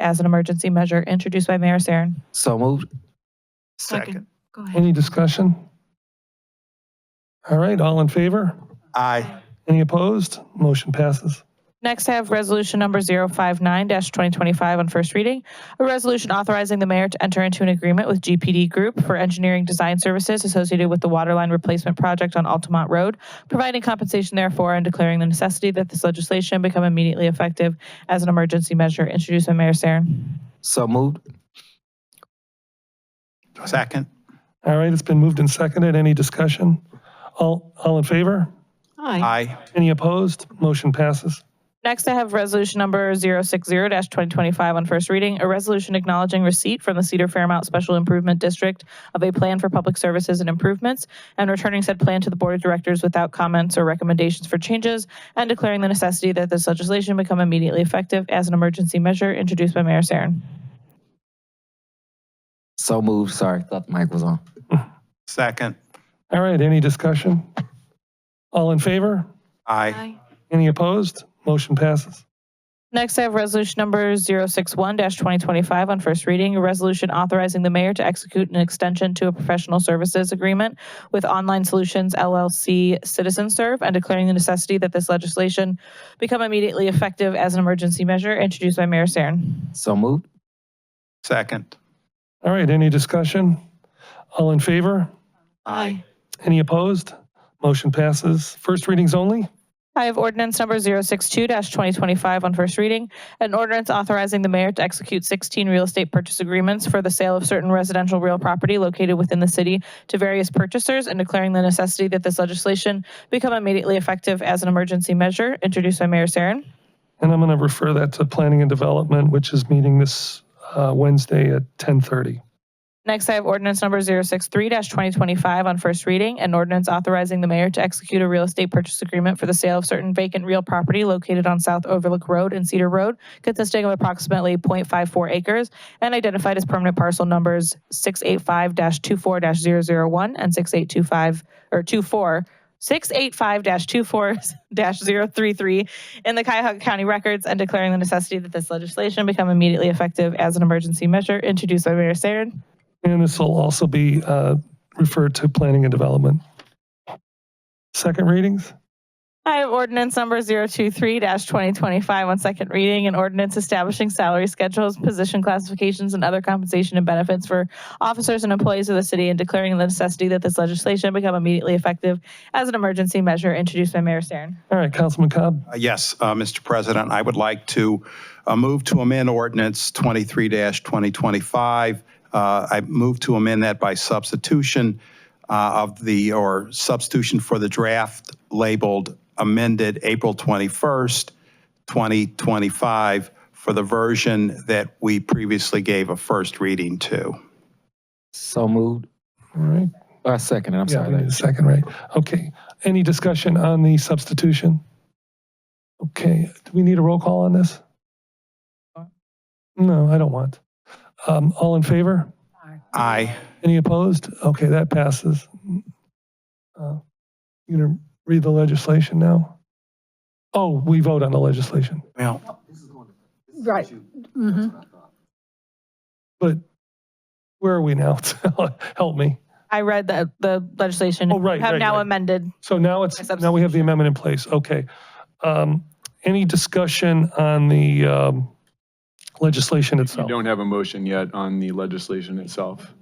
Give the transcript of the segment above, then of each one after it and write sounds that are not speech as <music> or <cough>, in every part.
as an emergency measure introduced by Mayor Sarin. So moved. Second. Go ahead. Any discussion? All right, all in favor? Aye. Any opposed? Motion passes. Next, I have resolution number 059-2025 on first reading, a resolution authorizing the mayor to enter into an agreement with GPD Group for engineering design services associated with the waterline replacement project on Altamont Road, providing compensation therefore and declaring the necessity that this legislation become immediately effective as an emergency measure introduced by Mayor Sarin. So moved. Second. All right, it's been moved and seconded. Any discussion? All, all in favor? Aye. Aye. Any opposed? Motion passes. Next, I have resolution number 060-2025 on first reading, a resolution acknowledging receipt from the Cedar Fairmount Special Improvement District of a plan for public services and improvements, and returning said plan to the Board of Directors without comments or recommendations for changes, and declaring the necessity that this legislation become immediately effective as an emergency measure introduced by Mayor Sarin. So moved. Sorry, thought the mic was on. Second. All right, any discussion? All in favor? Aye. Aye. Any opposed? Motion passes. Next, I have resolution number 061-2025 on first reading, a resolution authorizing the mayor to execute an extension to a professional services agreement with Online Solutions LLC Citizen Serve and declaring the necessity that this legislation become immediately effective as an emergency measure introduced by Mayor Sarin. So moved. Second. All right, any discussion? All in favor? Aye. Any opposed? Motion passes. First readings only? I have ordinance number 062-2025 on first reading, an ordinance authorizing the mayor to execute 16 real estate purchase agreements for the sale of certain residential real property located within the city to various purchasers and declaring the necessity that this legislation become immediately effective as an emergency measure, introduced by Mayor Sarin. And I'm going to refer that to Planning and Development, which is meeting this uh, Wednesday at 10:30. Next, I have ordinance number 063-2025 on first reading, an ordinance authorizing the mayor to execute a real estate purchase agreement for the sale of certain vacant real property located on South Overlook Road and Cedar Road, consisting of approximately .54 acres and identified as permanent parcel numbers 685-24-001 and 6825, or 24, 685-24-033 in the Cuyahoga County records and declaring the necessity that this legislation become immediately effective as an emergency measure introduced by Mayor Sarin. And this will also be uh, referred to Planning and Development. Second readings? I have ordinance number 023-2025 on second reading, an ordinance establishing salary schedules, position classifications, and other compensation and benefits for officers and employees of the city and declaring the necessity that this legislation become immediately effective as an emergency measure introduced by Mayor Sarin. All right, Councilman Cobb, Uh, Yes, uh, Mr. President, I would like to uh, move to amend ordinance 23-2025. Uh, I move to amend that by substitution uh, of the, or substitution for the draft labeled amended April 21st, 2025, for the version that we previously gave a first reading to. So moved. all right? I second it. I'm Yeah, I need sorry. a second, right? Okay. Any discussion on the substitution? Okay, do we need a roll call on this? No, I don't want. Um, All in favor? Aye. Any opposed? Okay, that passes. Uh, You going to read the legislation now? Oh, we vote on the legislation, Well, Right. Mm-hmm. Mhm. but where are we now? <laughs> Help me. I read the, the legislation. Oh, right, You Have right, now right. amended. So now By it's, substitution. now we have the amendment in place, okay. Um, Any discussion on the um, legislation You itself? don't have a motion yet on the legislation itself.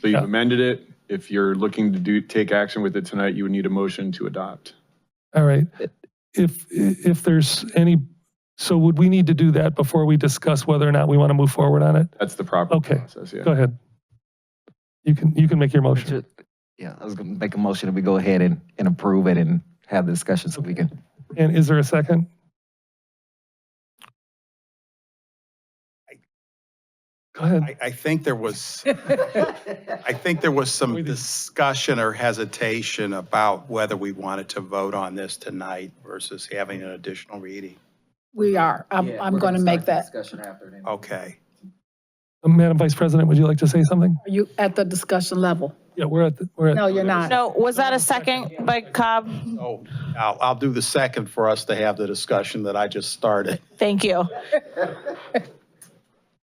So Yeah. you've amended it. If you're looking to do, take action with it tonight, you would need a motion to adopt. All right, if, if there's any, so would we need to do that before we discuss whether or not we want to move forward on it? That's the proper Okay. process, yeah. Go ahead. You can, you can make your motion. Yeah, I was gonna make a motion that we go ahead and, and approve it and have the discussion so we can. And is there a second? Go ahead. I, I think there was, I think there was some discussion or hesitation about whether we wanted to vote on this tonight versus having an additional reading. We are. I'm, I'm going to make that. Discussion after. Oh, Okay. Uh, Madam Vice President, would you like to say something? Are you at the discussion level? Yeah, we're at, the- we're at, No, you're not. No, was that a second by Cobb? So I'll, I'll do the second for us to have the discussion that I just started. Thank you.